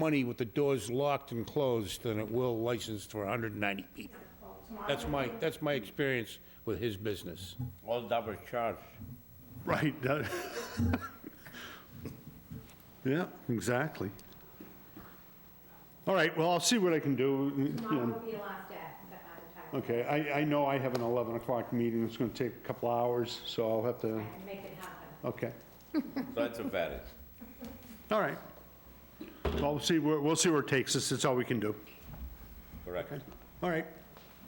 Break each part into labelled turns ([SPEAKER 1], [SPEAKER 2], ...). [SPEAKER 1] money with the doors locked and closed than it will licensed for 190 people. That's my, that's my experience with his business.
[SPEAKER 2] All double charge.
[SPEAKER 3] Right. that- Yeah, exactly. All right, well, I'll see what I can do. you
[SPEAKER 4] Tomorrow
[SPEAKER 3] know.
[SPEAKER 4] will be the last day that I'm
[SPEAKER 3] Okay, I, I know I have an 11 o'clock meeting, it's gonna take a couple hours, so I'll have to,
[SPEAKER 4] retired. I can make it happen.
[SPEAKER 3] okay,
[SPEAKER 2] That's a variance.
[SPEAKER 3] all right. Well, we'll see, where- we'll see where it takes us, that's all we can do.
[SPEAKER 2] Correct.
[SPEAKER 3] All right.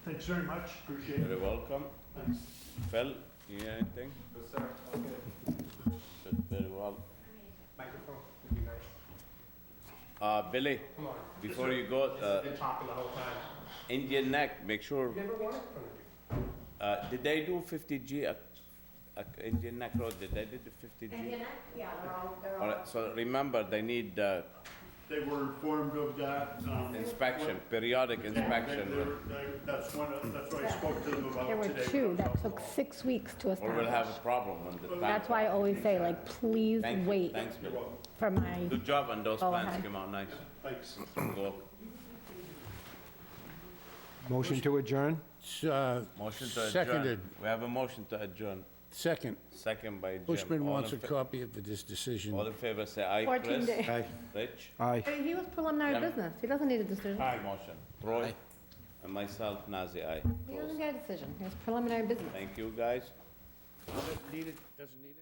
[SPEAKER 3] Thanks very much, appreciate
[SPEAKER 2] You're welcome. Phil, you need anything? Yes, sir. Very well.
[SPEAKER 5] Microphone would be nice.
[SPEAKER 2] Uh, Billy,
[SPEAKER 5] Come on.
[SPEAKER 2] before you go, uh,
[SPEAKER 5] Been talking the whole time.
[SPEAKER 2] Indian Neck, make sure,
[SPEAKER 5] Never won it from you.
[SPEAKER 2] uh, did they do 50G at, at Indian Neck Road? Did they do the 50G?
[SPEAKER 4] And then, I- yeah, they're all, they're
[SPEAKER 2] All
[SPEAKER 4] all.
[SPEAKER 2] right, so remember, they need uh,
[SPEAKER 3] They were informed of that. um,
[SPEAKER 2] inspection, periodic
[SPEAKER 3] they- they
[SPEAKER 2] inspection,
[SPEAKER 3] were- they- That's one, of- that's what I spoke to them about
[SPEAKER 6] There were
[SPEAKER 3] today.
[SPEAKER 6] two that took six weeks to
[SPEAKER 2] or we'll
[SPEAKER 6] establish.
[SPEAKER 2] have a problem when the time.
[SPEAKER 6] That's why I always say, like, please
[SPEAKER 2] Thank you,
[SPEAKER 6] wait
[SPEAKER 2] Thanks, Billy.
[SPEAKER 6] for my,
[SPEAKER 2] Good job on those
[SPEAKER 6] Go
[SPEAKER 2] plans,
[SPEAKER 6] ahead.
[SPEAKER 2] came out nice.
[SPEAKER 3] Thanks.
[SPEAKER 2] Go.
[SPEAKER 5] Motion to adjourn?
[SPEAKER 1] S- uh,
[SPEAKER 2] Motion to adjourn.
[SPEAKER 1] Seconded,
[SPEAKER 2] We have a motion to adjourn,
[SPEAKER 1] second.
[SPEAKER 2] second by Jim.
[SPEAKER 1] Bushman
[SPEAKER 2] All
[SPEAKER 1] wants a
[SPEAKER 2] in fa-
[SPEAKER 1] copy of this decision.
[SPEAKER 2] All in favor, say aye,
[SPEAKER 6] 14
[SPEAKER 2] Chris.
[SPEAKER 6] days.
[SPEAKER 2] Rich?
[SPEAKER 5] Aye.
[SPEAKER 6] he was preliminary business, he doesn't need a decision.
[SPEAKER 2] Aye. Motion. Troy? And myself, Nazir, aye.
[SPEAKER 6] He doesn't get a decision, he was preliminary business.
[SPEAKER 2] Thank you, guys.
[SPEAKER 1] Need it, doesn't need it?